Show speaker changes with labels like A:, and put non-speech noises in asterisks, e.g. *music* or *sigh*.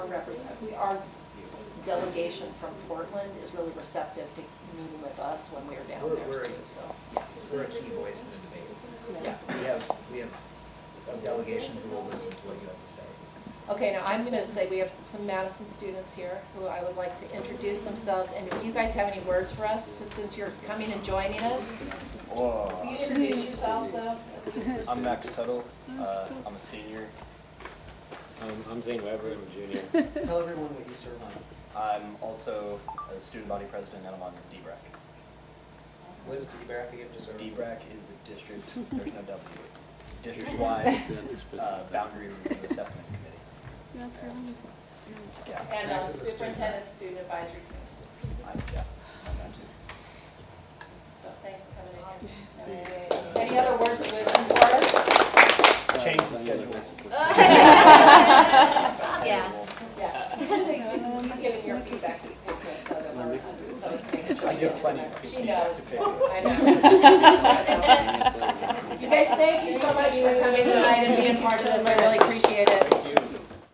A: representative, we, our delegation from Portland is really receptive to meeting with us when we're down
B: We're-
A: there
B: we're-
A: too, so, yeah.
B: We're a key voice in the debate.
A: Yeah.
B: We have, we have a delegation who will listen to what you have to say.
A: Okay, now I'm gonna say we have some Madison students here who I would like to introduce themselves, and if you guys have any words for us, since you're coming and joining us? Will you introduce yourselves though?
C: I'm Max Tuttle. Uh, I'm a senior.
D: Um, I'm Zane Weber, I'm a junior.
B: Tell everyone what you serve on.
C: I'm also a student body president and I'm on DBRAC.
B: What is BRAC again, just so everyone-
C: DBRAC E is the district, there's no W, district-wide uh, boundary review assessment committee. Yeah,
A: And uh,
B: Max is a student.
A: superintendent student advisory committee,
C: I'm, yeah, I'm that too.
A: so thanks for coming in here. Any other words of wisdom for us?
C: Change the schedule.
A: *laughs*
E: Yeah.
A: Yeah. *laughs* You've given your feedback to Pipkin, so that we're, so that they can
C: I give plenty of
A: She
C: feedback
A: knows.
C: to pick.
A: I know. You guys, thank you so much for coming tonight and being part of this, I really appreciate it.